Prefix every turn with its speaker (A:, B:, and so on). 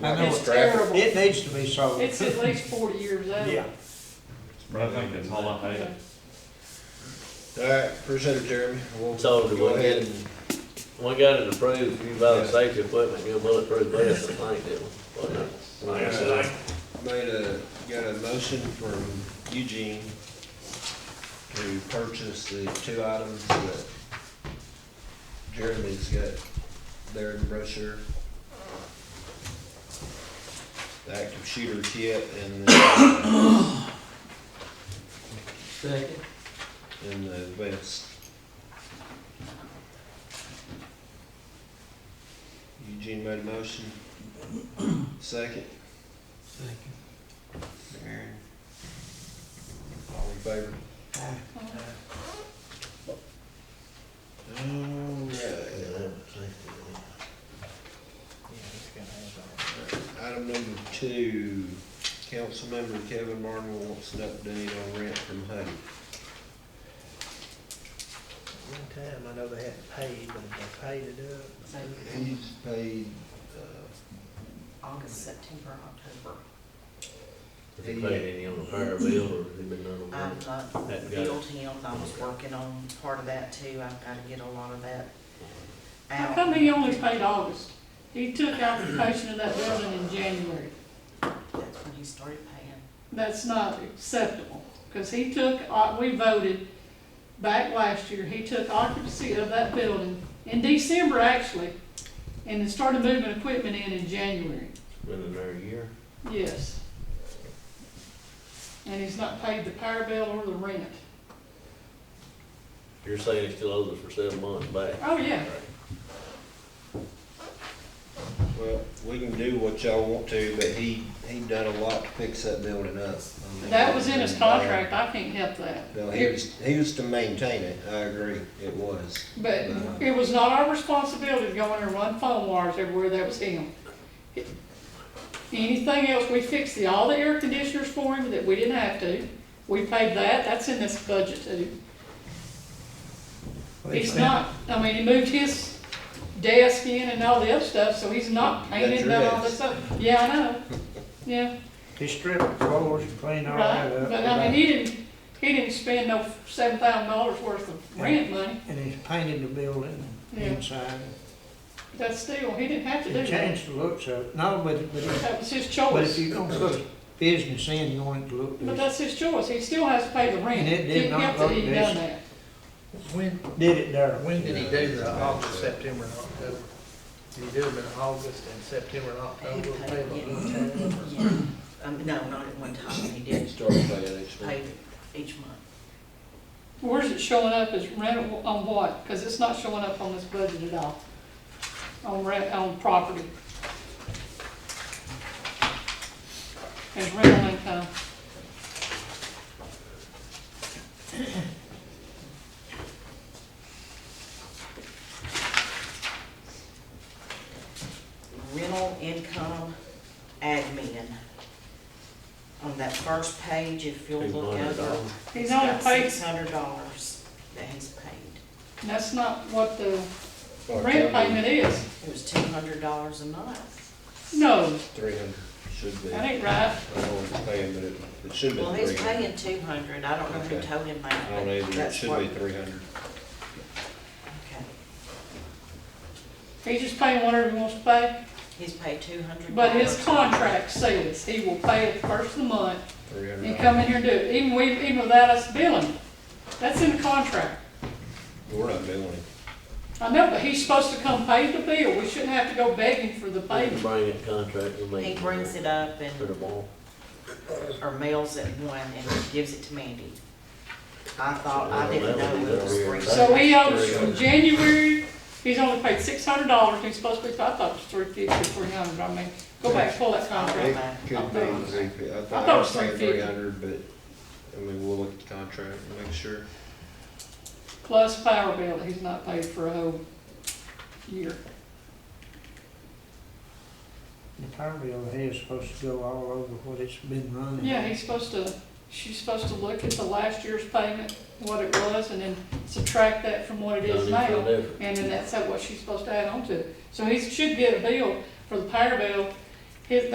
A: I know
B: It's
A: it-
B: terrible.
A: It needs to be sold.
B: It's at least forty years old.
A: Yeah.
C: I think that's all I had.
D: All right, appreciate it, Jeremy. We'll
E: So do
D: go
E: we
D: ahead
E: get,
D: and,
E: we got it approved, you buy the
D: Yeah.
E: safety equipment, you a bulletproof vest, I think, didn't we? Wasn't it?
D: Like I said, I made a, got a motion from Eugene to purchase the two items that Jeremy's got there in the brochure. The active shooter kit and the, uh,
A: Second.
D: and the vest. Eugene made a motion. Second.
A: Second.
D: Aaron. All in favor?
A: Aye.
E: Yeah,
D: Alright,
E: that was safety.
D: item number two, council member Kevin Barnwell wants an update on rent from Huddy.
F: One time, I know they hadn't paid, but they paid it up.
D: He's paid, uh,
B: August, September, October.
E: Has he paid any on the fire bill, or has he been none of
G: I've
E: them?
G: not
E: That got it.
G: billed him, I was working on part of that too, I've gotta get a lot of that
B: How
G: out.
B: come he only paid August? He took occupation of that building in January.
G: That's when he started paying.
B: That's not acceptable, because he took, uh, we voted back last year, he took occupancy of that building in December, actually, and then started moving equipment in in January,
E: Been in there a year?
B: yes. And he's not paid the power bill or the rent.
E: You're saying he still owes us for seven months back?
B: Oh, yeah,
D: well, we can do what y'all want to, but he, he done a lot to fix that building up. I mean,
B: that was in his contract, I can't help that.
D: No, he was, he was to maintain it, I agree, it was.
B: But it was not our responsibility to go in there and run phone wires everywhere, that was him. Anything else, we fixed the, all the air conditioners for him that we didn't have to. We paid that, that's in this budget too. He's not, I mean, he moved his desk in and all the other stuff, so he's not
D: That's
B: painted
D: your
B: and all this
D: desk.
B: stuff. Yeah, I know, yeah,
A: He stripped the floors and cleaned all
B: right,
A: that up.
B: but I mean, he didn't, he didn't spend no seven thousand dollars worth of rent money.
A: And he's painted the building
B: Yeah.
A: inside.
B: That's still, he didn't have to do
A: It
B: that.
A: changed the looks of it. No, but, but, it-
B: That was his
A: but
B: choice.
A: if you're gonna put business in, you want it to look
B: But
A: good.
B: that's his choice, he still has to pay the rent.
A: And it did
B: He
A: not
B: kept it, he
A: look
B: done
A: decent.
B: that.
F: When,
A: Did it there.
F: when did he do the August, September, and October? Did he do them in August and September and
G: He
F: October? Oh, Pay
G: paid,
F: them
G: yeah,
F: one time?
G: yeah, um, no, not at one time, he
D: He
G: did
D: started paying each
G: pay
D: month.
G: each month.
B: Where's it showing up as rent on what? Because it's not showing up on this budget at all, on rent, on property. As rental income.
G: rental income admin. On that first page, if you'll
E: Two
G: look
E: hundred
G: over,
E: dollars?
B: He's
G: it's
B: only
G: got
B: paid,
G: six hundred dollars that he's paid.
B: that's not what the
D: Or
B: rent payment is.
G: It was two hundred dollars a month.
B: No,
D: Three hundred, should be.
B: that ain't right.
D: I don't know what he's paying, but it, it should be
G: Well, he's
D: three hundred.
G: paying two hundred, I don't know who
D: Okay.
G: told him
D: I
G: that,
D: don't
G: but
D: either, it
G: that's what.
D: should be three hundred.
G: Okay,
B: He's just paying whatever he wants to pay,
G: he's paid two hundred.
B: but his contract says he will pay it first of the month
D: Three hundred.
B: and come in here and do it, even we, even without us billing. him. That's in the contract.
D: We're not doing it.
B: I know, but he's supposed to come pay the bill, we shouldn't have to go begging for the
E: He can
B: payment.
E: bring that contract to me.
G: He brings it up
E: To the
G: and,
E: ball.
G: or mails it one and gives it to Mandy. I thought, I
E: Well, that
G: didn't know
E: would
G: it
E: be
G: was
E: very
G: three.
E: bad.
B: So he owes from January, he's only paid six hundred dollars, he's supposed to be, I thought it was three fifty, three hundred, I mean, go back, pull that
D: It
B: contract.
D: could be three fifty, I thought
B: thought it
D: I
B: was
D: was saying
B: 350.
D: three hundred, but, I mean, we'll look at the contract and make sure.
B: Plus power bill that he's not paid for a whole year.
A: The power bill here is supposed to go all over what it's been running.
B: Yeah, he's supposed to, she's supposed to look at the last year's payment, what it was, and then subtract that from what it is
E: Done it for
B: now.
E: different.
B: And then that's how- what she's supposed to add on to. it. So he should get a bill for the power bill